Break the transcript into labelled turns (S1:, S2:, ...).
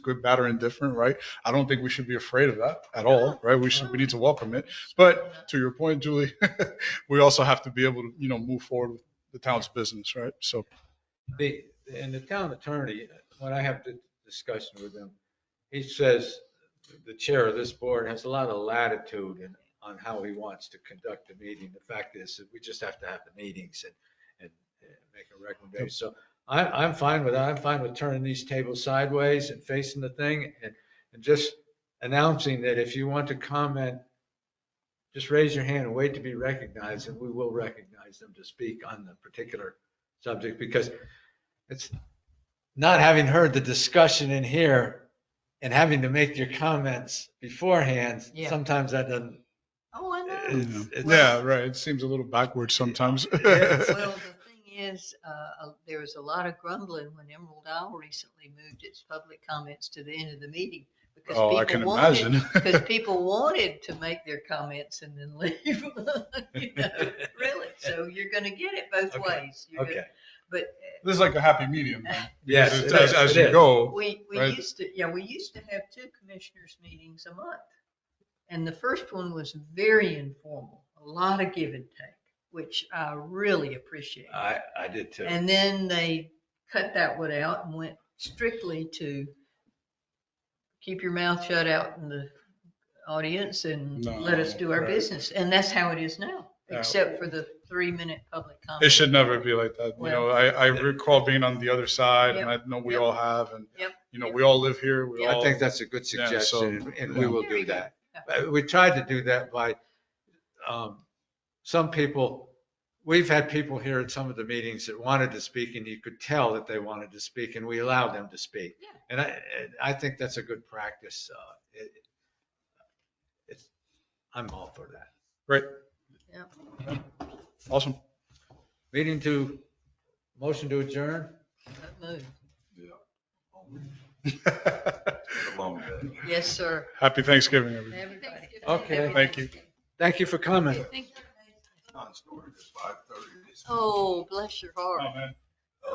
S1: good, bad, or indifferent, right? I don't think we should be afraid of that at all, right? We should, we need to welcome it. But to your point, Julie, we also have to be able to, you know, move forward with the town's business, right? So,
S2: The, and the town attorney, when I have the discussion with him, he says the chair of this board has a lot of latitude in, on how he wants to conduct the meeting. The fact is that we just have to have the meetings and, and and make a recommendation. So I, I'm fine with that. I'm fine with turning these tables sideways and facing the thing and, and just announcing that if you want to comment, just raise your hand and wait to be recognized and we will recognize them to speak on the particular subject because it's not having heard the discussion in here and having to make your comments beforehand,
S3: Yeah.
S2: sometimes that doesn't.
S3: Oh, I know.
S1: you
S2: it's-
S1: know.
S2: it's-
S1: yeah, right. It seems a little backwards sometimes.
S2: Yeah.
S3: Well, the thing is, uh, uh, there was a lot of grumbling when Emerald Isle recently moved its public comments to the end of the meeting. because
S1: Oh, I
S3: people
S1: can
S3: wanted-
S1: imagine.
S3: Because people wanted to make their comments and then leave, you know, really. So you're going to get it both
S2: Okay,
S3: ways. You're gonna-
S2: Okay,
S3: But
S1: This is like a happy medium. then,
S2: yes,
S1: As,
S2: it
S1: as-
S2: is,
S1: as
S2: it
S1: you
S2: is.
S1: go,
S3: We, we
S1: right?
S3: used to, yeah, we used to have two commissioners meetings a month. And the first one was very informal, a lot of give and take, which I really appreciate.
S2: I, I did too.
S3: And then they cut that one out and went strictly to keep your mouth shut out in the audience and let us
S1: No,
S3: do our
S1: right.
S3: business. And that's how it is now,
S1: Yeah.
S3: except for the three minute public comment.
S1: It should never be like that. You know, I, I recall being on the other side and I know we all have and,
S3: Yep.
S1: you know, we all live here. We
S2: I
S1: all,
S2: think that's a good
S1: Yeah, so,
S2: suggestion, and we
S1: yeah.
S2: will
S3: There we
S2: do
S3: go.
S2: that. Uh, We tried to do that by, um, some people, we've had people here at some of the meetings that wanted to speak, and you could tell that they wanted to speak, and we allowed them to speak.
S3: Yeah.
S2: And I, and I think that's a good practice. uh, it- it's- I'm all for that.
S1: great.
S3: Yep.
S1: Awesome.
S2: Meeting to, motion to adjourn?
S3: That move.
S4: long day.
S3: Yes, sir.
S1: Happy Thanksgiving, everybody.
S3: Everybody.
S2: Okay.
S1: Thank you.
S2: Thank you for coming.
S3: Thank you.
S4: Non-storage is five thirty.
S3: Oh, bless your heart.
S1: man.